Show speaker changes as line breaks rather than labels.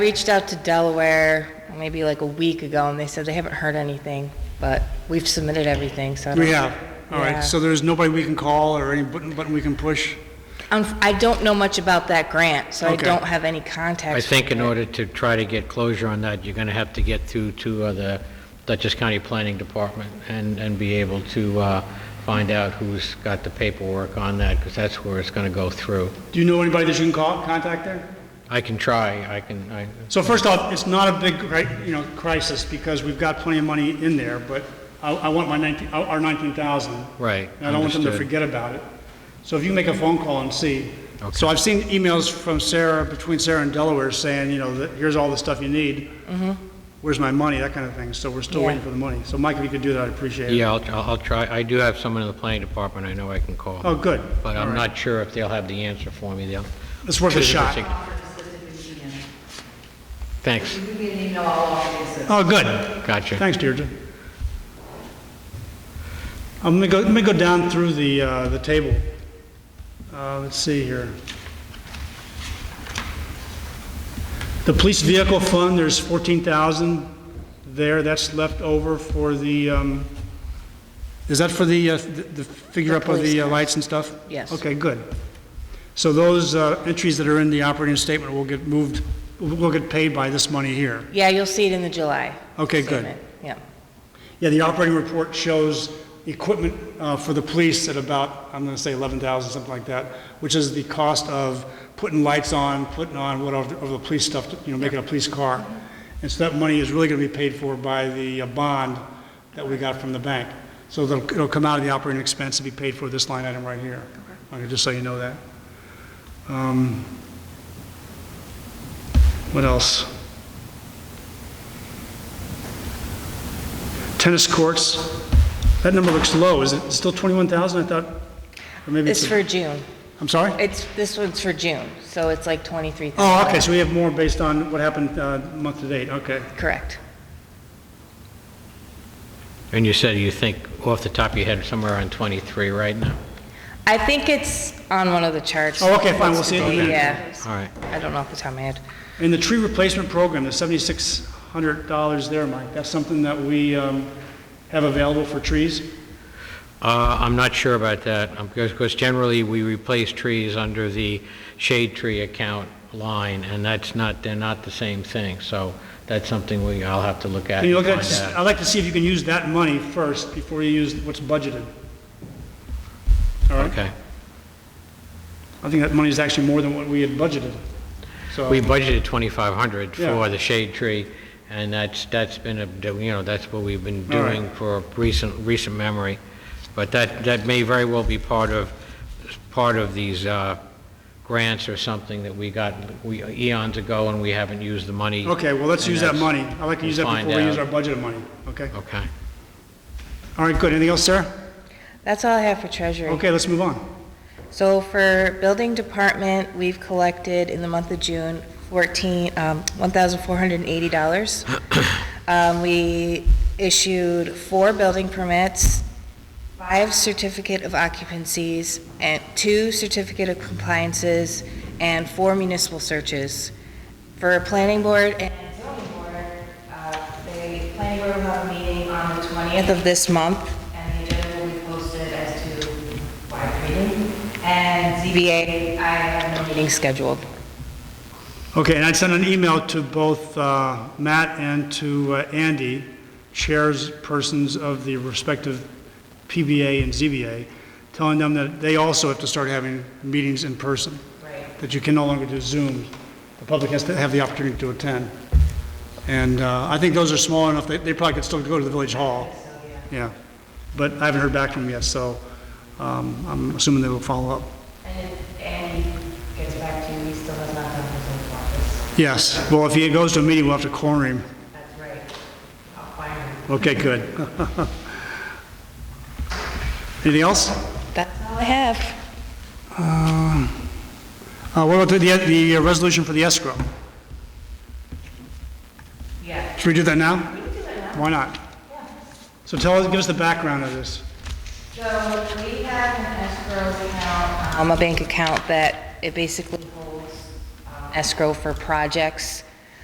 Reached out to Delaware maybe like a week ago, and they said they haven't heard anything, but we've submitted everything, so. I
We
don't-
have, all
Yeah.
right, so there's nobody we can call or any button, button we can push?
Um, I don't know much about that grant, so I
Okay.
don't have any contact.
I think in order to try to get closure on that, you're going to have to get through to uh, the Dutchess County Planning Department and, and be able to uh, find out who's got the paperwork on that, because that's where it's going to go through.
Do you know anybody that you can call, contact there?
I can try, I can, I,
So first off, it's not a big, cri- you know, crisis, because we've got plenty of money in there, but I, I want my 19, our our 19,000.
Right,
And I don't want them to
understood.
forget about it. So if you make a phone call and see. So
Okay.
I've seen emails from Sarah, between Sarah and Delaware, saying, you know, that here's all the stuff you need. Where's my money, that kind of thing, so we're
Mm-hmm.
still
Yeah.
waiting for the money. So Mike, if you could do that, I'd appreciate it.
yeah, I'll, I'll try, I do have someone in the planning department I know I can call.
Oh, good.
But
All
I'm
right.
not sure if they'll have the answer for me, they'll.
It's worth a shot.
Thanks,
You can email all of these.
Oh, good.
gotcha.
Thanks, Deirdre. I'm gonna go, let me go down through the, uh, the table. Uh, let's see here. The police vehicle fund, there's fourteen thousand there, that's left over for the, um, is that for the, uh, the the figure
The
up of
police
the uh,
cars.
lights and stuff?
Yes.
Okay, good. So those, uh, entries that are in the operating statement will get moved, will get paid by this money here.
Yeah, you'll see it in the July.
Okay, good.
statement. Yeah.
Yeah, the operating report shows equipment uh, for the police at about, I'm going to say 11,000, something like that, which is the cost of putting lights on, putting on whatever of the police stuff, to, you know, making a police car. And so that money is really going to be paid for by the uh, bond that we got from the bank. So it'll it'll come out of the operating expense and be paid for this line item right here. Okay, Just so you know that. Um, What else? Tennis courts, that number looks low. Is it still 21,000? I thought, or maybe it's...
It's for
a-
June.
I'm sorry?
It's, this one's for June, so it's like 23,000.
Oh, okay, so we have more based on what happened uh, month to date, Oh, okay.
Correct.
And you said you think off the top of your head somewhere around 23 right now?
I think it's on one of the charts.
Oh, okay, fine, we'll see it in a minute.
Yeah.
All right.
I don't know off the top of my head.
And the tree replacement program, the $7,600 there, Mike, that's something that we um, have available for trees?
Uh, I'm not sure about that, um, because, because generally, we replace trees under the shade tree account line, and that's not, they're not the same thing, so that's something we, I'll have to look at
Can you
and
look at,
find
I'd
out.
like to see if you can use that money first before you use what's budgeted. All right?
Okay.
I think that money is actually more than what we had budgeted, so...
We budgeted 2,500
Yeah.
for the shade tree, and that's, that's been, a you know, that's what we've been
All right.
doing for recent, recent memory. But that, that may very well be part of, part of these uh, grants or something that we got we- eons ago, and we haven't used the money.
Okay, well, let's
and
use that
that's-
money. I'd like to use that
find
before we use our
out.
budget of money, okay?
Okay.
All right, good. Anything else, Sarah?
That's all I have for treasury.
Okay, let's move on.
So for building department, we've collected in the month of June 14, um, $1,480. Um, We issued four building permits, five certificate of occupancies, and two certificate of compliances, and four municipal searches. For planning board and zoning board, uh, the planning board will have a meeting on the 20th of this month,
And the agenda will be posted as to wide reading. And ZBA, I have no meeting
meeting scheduled.
Okay, and I'd send an email to both uh, Matt and to uh, Andy, chairs persons of the respective PBA and ZBA, telling them that they also have to start having meetings in person,
Right.
that you can no longer do Zoom. The public has to have the opportunity to attend. And uh, I think those are small enough, that they probably could still go to the village hall. Yeah, but I haven't heard back from them yet, so um, I'm assuming they will follow up.
And if Andy gets back to you, he still has not done his own office.
Yes, well, if he goes to a meeting, we'll have to corner him.
That's right. I'll find him.
Okay, good. Anything else?
That's all I have.
Uh, What about the, the resolution for the escrow?
Yeah.
Should we do that now? Why not? So tell us, give us the background of this.
So we have an escrow account.
um, a bank account that it basically holds um, escrow for projects